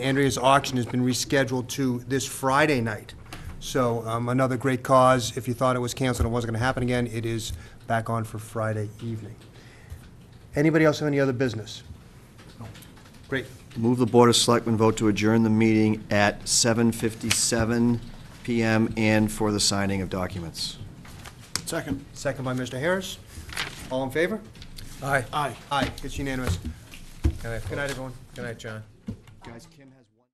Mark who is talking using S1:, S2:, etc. S1: Andrea's auction has been rescheduled to this Friday night. So um, another great cause. If you thought it was canceled and wasn't going to happen again, it is back on for Friday evening. Anybody else have any other business? Great.
S2: Move the Board of Selectmen vote to adjourn the meeting at 7:57 PM and for the signing of documents.
S3: Second.
S1: Second by Mr. Harris. All in favor?
S3: Aye. Aye.
S1: Aye, it's unanimous. Good night, everyone.
S4: Good night, John.
S2: Guys, Kim has...